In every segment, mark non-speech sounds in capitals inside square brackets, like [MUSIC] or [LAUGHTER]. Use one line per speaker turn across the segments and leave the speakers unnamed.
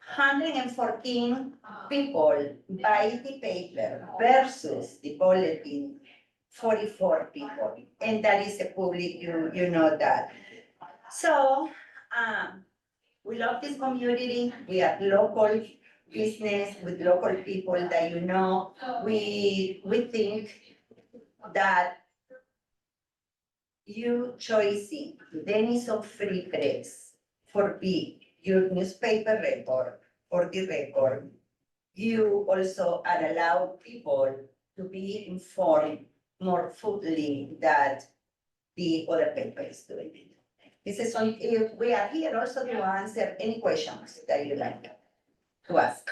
hundred and fourteen people buy the paper versus the bulletin, forty-four people. And that is the public, you, you know that. So, um, we love this community, we have local business with local people that you know. We, we think that you choosing Denison Free Press for be your newspaper record for the record. You also are allowed people to be informed more fully that the other paper is doing it. This is on, if we are here also to answer any questions that you like to ask.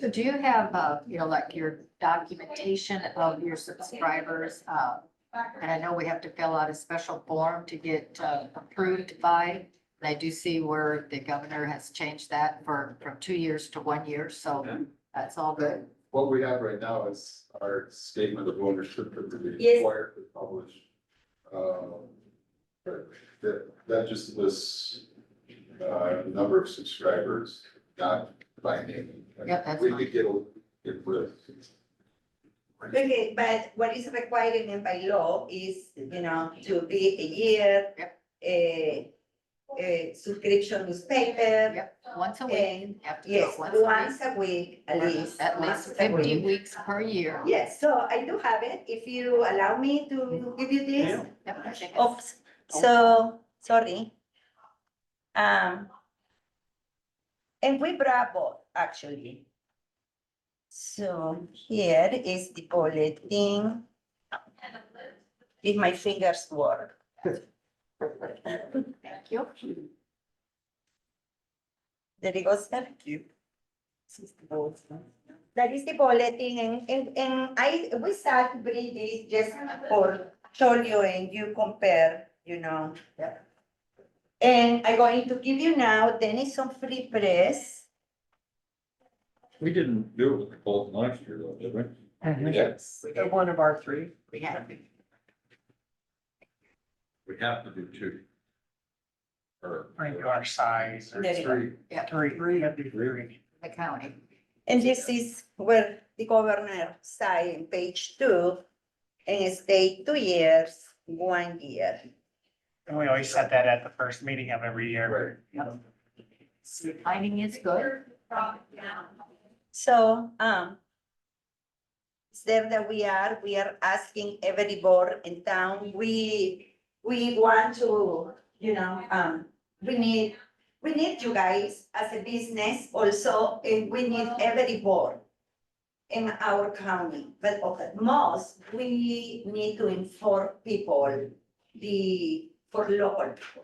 So do you have, uh, you know, like your documentation of your subscribers? uh, And I know we have to fill out a special form to get uh, approved by. And I do see where the governor has changed that for, from two years to one year, so that's all good.
What we have right now is our statement of ownership that we
Yes.
required to publish. Um, but That, that just lists, uh, number of subscribers, not by name.
Yep, that's
We
fine.
could get, a- get rid of.
Okay, but what is required in by law is, you know, to be a year. A, a subscription newspaper,
Once a week,
and
you have to do
yes,
it once a
once a week at
week.
least.
At
once
least
a
fifty
week.
weeks per year.
Yes, so I do have it, if you allow me
Mm.
to give you this.
Yep, I think it's-
Oops, Oh, so, sorry. Um. And we brought both, actually. So here is the bulletin. If my fingers work.
Thank you.
There it goes, thank you. That is the bulletin and, and, and I, we start breathing just for show you and you compare, you know. And I'm going to give you now Denison Free Press.
We didn't do it with the Bolton last year though, did we?
Yes.
They're One of our three.
We have,
We have to do two. Or.
Bring to our size or
There you go.
three, three, three, that'd be three.
the county.
And this is where the governor signed page two and stay two years, one year.
And we always set that at the first meeting of every year.
Finding is good.
So, um. It's there that we are, we are asking every board in town, we, we want to, you know, um, we need. We need you guys as a business also, and we need every board. In our county, but of the most, we need to inform people, the, for local. people.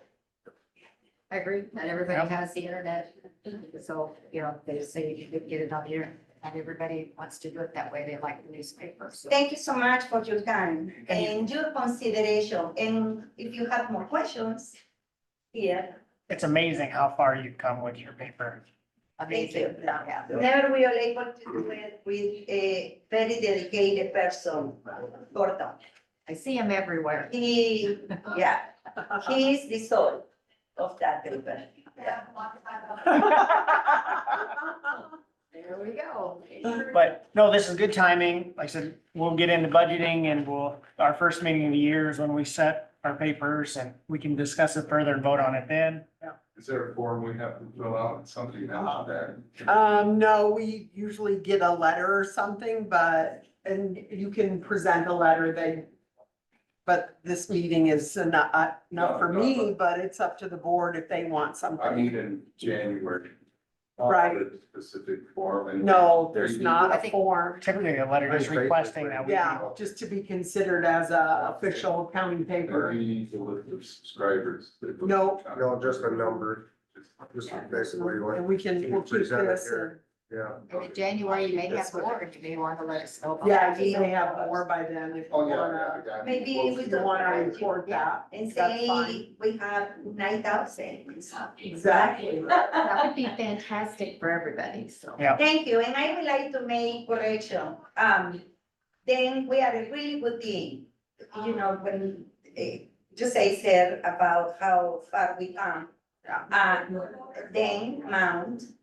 I agree, not everybody
Yep.
has the internet, so, you know, they say you could get it on here, and everybody wants to do it that way, they like the newspaper, so.
Thank you so much for your time
Thank you.
and your consideration, and if you have more questions. Here.
It's amazing how far you've come with your paper.
Thank
Amazing,
you.
yeah,
Never we are able to do it with a very dedicated person, Gordon.
I see him everywhere.
He, yeah, he is the soul of that paper.
There we go.
But no, this is good timing. Like I said, we'll get into budgeting and we'll, our first meeting of the year is when we set our papers and we can discuss it further and vote on it then.
Is there a form we have to fill out, something now that?
[LAUGHS] Um, no, we usually get a letter or something, but, and you can present a letter then. But this meeting is not, uh, not for
No, no,
me, but it's up to the board if they want
I
something.
mean, in January.
Right.
The Specific form and.
No, there's
I
not a
think-
form.
Typically, a letter is requesting that we.
Yeah, just to be considered as a official county
Or
paper.
you need to look for subscribers. that-
No.
No, just a number, just
Just-
basically what,
And we can,
you
we'll
can
keep
present it
this.
here. yeah.
And in January, you may have more, and you may want to let us know.
and-
about
Yeah,
that.
you may have more by then if you
Oh, yeah,
wanna,
yeah.
Maybe we
if you wanna report that.
And
That's fine.
say, we have nine thousand.
Exactly.
That would be fantastic for everybody, so.
Yeah.
Thank you, and I would like to make correction. Um, then we are a really good team. You know, when, eh, just I said about how far we come. Uh, then Mount,